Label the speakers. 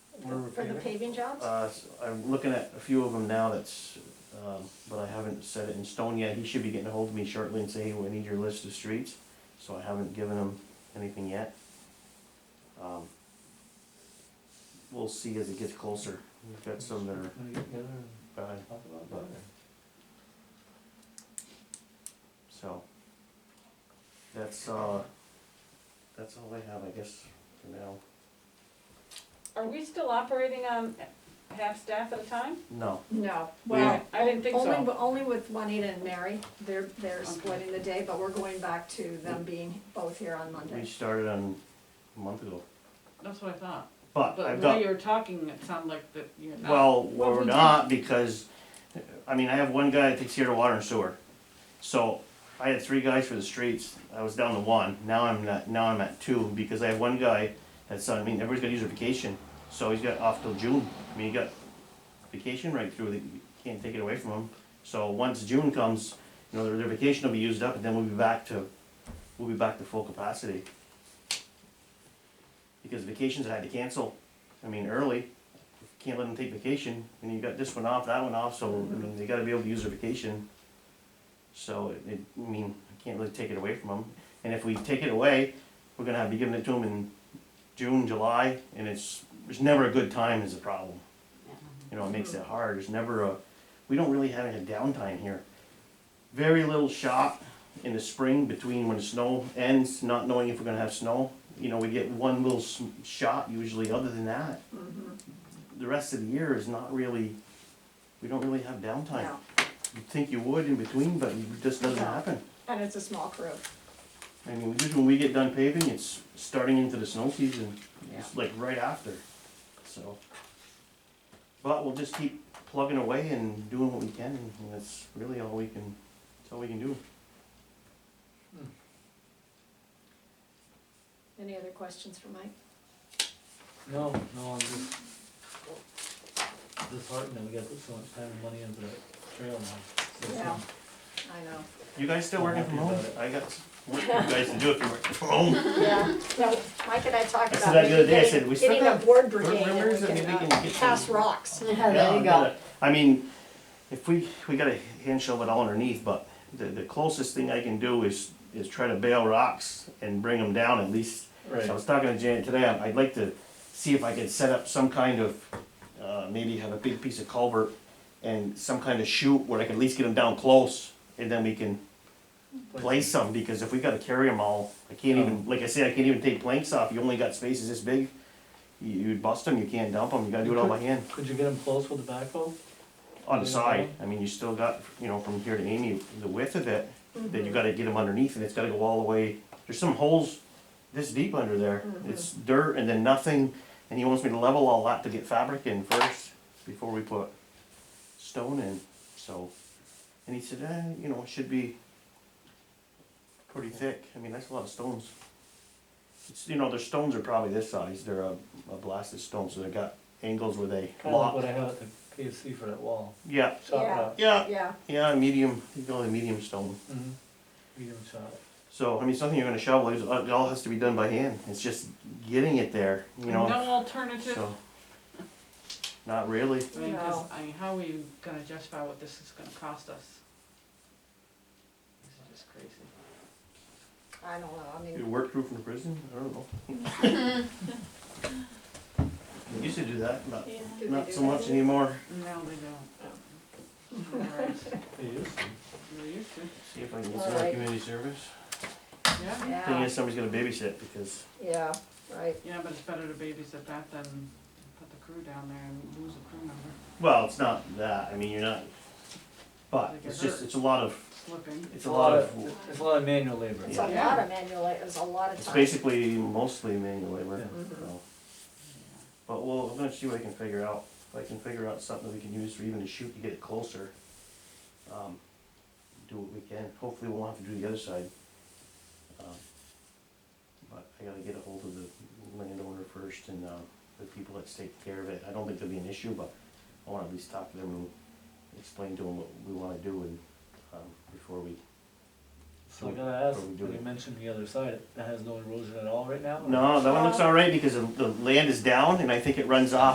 Speaker 1: for the paving jobs?
Speaker 2: Uh, s- I'm looking at a few of them now that's, um, but I haven't set it in stone yet. He should be getting a hold of me shortly and say, hey, we need your list of streets. So I haven't given him anything yet. Um, We'll see as it gets closer. We've got some that are
Speaker 3: Wanna get together and
Speaker 2: bad,
Speaker 3: talk about that, or-
Speaker 2: so. That's, uh, that's all I have, I guess, for now.
Speaker 4: Are we still operating on half staff at a time?
Speaker 2: No,
Speaker 1: No,
Speaker 4: Yeah.
Speaker 1: well.
Speaker 4: I didn't think
Speaker 1: Only,
Speaker 4: so.
Speaker 1: but only with Juanita and Mary, they're, they're
Speaker 4: Okay.
Speaker 1: splitting the day, but we're going back to them being both here on
Speaker 2: we
Speaker 1: Monday.
Speaker 2: started on a month ago,
Speaker 4: That's what I thought.
Speaker 2: but
Speaker 4: But
Speaker 2: I've
Speaker 4: the way
Speaker 2: got
Speaker 4: you were talking, it sounded like that you're not.
Speaker 2: Well,
Speaker 4: Well,
Speaker 2: we're
Speaker 4: we
Speaker 2: not because, I mean, I have one guy that takes care of water and sewer. So I had three guys for the streets. I was down to one. Now I'm not, now I'm at two because I have one guy that's, on- I mean, everybody's got to use their vacation. So he's got off till June. I mean, he got vacation right through, that you can't take it away from him. So once June comes, you know, their, their vacation will be used up and then we'll be back to, we'll be back to full capacity. Because vacations I had to cancel, I mean, early can't let them take vacation, and you got this one off, that one off, so, I mean, they gotta be able to use their vacation. So, it, it, I mean, I can't really take it away from them, and if we take it away, we're gonna have to be giving it to them in June, July, and it's, there's never a good time is the problem. You know, it makes it hard, there's never a, we don't really have any downtime here. Very little shop in the spring between when the snow ends, not knowing if we're gonna have snow, you know, we get one little s- shot usually, other than that
Speaker 1: Mhm,
Speaker 2: the rest of the year is not really, we don't really have downtime.
Speaker 1: no.
Speaker 2: You'd think you would in between, but it just doesn't
Speaker 1: No.
Speaker 2: happen.
Speaker 1: And it's a small crew.
Speaker 2: I mean, just when we get done paving, it's starting into the snow season,
Speaker 4: Yeah.
Speaker 2: it's like right after, so. But we'll just keep plugging away and doing what we can, and that's really all we can, that's all we can do.
Speaker 1: Any other questions for Mike?
Speaker 3: No, no, I'm just disheartened that we gotta put so much time and money into that trail now. So,
Speaker 1: Yeah. I know.
Speaker 2: You guys still working from home?
Speaker 3: Happy about
Speaker 2: I got work for you guys to do if you're working from home.
Speaker 1: Yeah, no, Mike and I talked
Speaker 2: I
Speaker 1: about.
Speaker 2: said that the other day, I
Speaker 1: getting-
Speaker 2: said, we still
Speaker 1: Getting a
Speaker 2: have
Speaker 1: board
Speaker 2: bird
Speaker 1: brigade and we
Speaker 2: rumors and we
Speaker 1: can
Speaker 2: can
Speaker 1: uh,
Speaker 2: get
Speaker 1: pass
Speaker 2: some-
Speaker 1: rocks.
Speaker 5: Yeah,
Speaker 2: Yeah,
Speaker 5: there you go.
Speaker 2: gotta- I mean, if we, we gotta hand shove it all underneath, but the, the closest thing I can do is, is try to bail rocks and bring them down at least.
Speaker 3: Right.
Speaker 2: So I was talking to Janet today, I'd I'd like to see if I could set up some kind of, uh, maybe have a big piece of culvert and some kind of chute where I can at least get them down close, and then we can place some, because if we gotta carry them all, I can't even, like I said, I can't even take planks off, you only got spaces this big. You, you'd bust them, you can't dump them, you gotta do it all by hand.
Speaker 3: Could you get them close with the backhoe?
Speaker 2: on the side, I mean, you still got, you know, from here to Amy, the width of it, then you gotta get them underneath and it's gotta go all the way, there's some holes this deep under there, it's dirt and then nothing, and he wants me to level all that to get fabric in first, before we put stone in, so, and he said, eh, you know, it should be pretty thick, I mean, that's a lot of stones. It's, you know, their stones are probably this size, they're a, a blasted stone, so they got angles where they
Speaker 3: Kinda like what
Speaker 2: lock,
Speaker 3: I have at the KFC for that wall.
Speaker 2: yeah,
Speaker 3: Chop it
Speaker 1: Yeah.
Speaker 3: up.
Speaker 2: yeah,
Speaker 1: Yeah,
Speaker 2: yeah, medium, you go with a medium stone.
Speaker 3: Mhm. Medium chop.
Speaker 2: So, I mean, something you're gonna shovel, it's- it all has to be done by hand, it's just getting it there, you know,
Speaker 6: No alternative,
Speaker 2: so. Not really,
Speaker 6: I mean, 'cause,
Speaker 1: No.
Speaker 6: I mean, how are you gonna justify what this is gonna cost us? This is just crazy.
Speaker 1: I don't know, I
Speaker 2: you
Speaker 1: mean,
Speaker 2: work through from the prison, I don't know. You Used to do that, not,
Speaker 1: do they
Speaker 2: not
Speaker 1: do
Speaker 2: so
Speaker 1: that?
Speaker 2: much anymore,
Speaker 6: No, they don't. Alright,
Speaker 3: They used to.
Speaker 6: They're used to,
Speaker 2: see if I can get
Speaker 1: All
Speaker 2: some more
Speaker 1: right.
Speaker 2: community service.
Speaker 6: yeah,
Speaker 2: Thing
Speaker 1: Yeah,
Speaker 2: is, somebody's gonna babysit, because,
Speaker 1: yeah, right,
Speaker 6: yeah, but it's better to babysit that than put the crew down there and lose a crew member
Speaker 2: well, it's not that, I mean, you're not, but
Speaker 6: They get
Speaker 2: it's just,
Speaker 6: hurt.
Speaker 2: it's a lot of,
Speaker 6: slipping.
Speaker 2: it's a lot of,
Speaker 3: It's a lot of manual labor.
Speaker 1: it's a
Speaker 6: Yeah.
Speaker 1: lot of manual, la- it's a lot of
Speaker 2: It's
Speaker 1: time. Mm-hmm.
Speaker 2: basically mostly manual labor,
Speaker 3: Yeah.
Speaker 2: so. But we'll, I'm gonna see what I can figure out, if I can figure out something that we can use for even to shoot to get it closer. Um, do what we can, hopefully we won't have to do the other side. Um, But I gotta get a hold of the landowner first and, uh, the people that's taking care of it, I don't think there'll be an issue, but I wanna at least talk to them and explain to them what we wanna do and, um, before we.
Speaker 3: So I gotta ask,
Speaker 2: Or we do
Speaker 3: when you
Speaker 2: it.
Speaker 3: mentioned the other side, that has no erosion at all right now? or-
Speaker 2: No, that one looks all right because the, the land is down and I think it runs off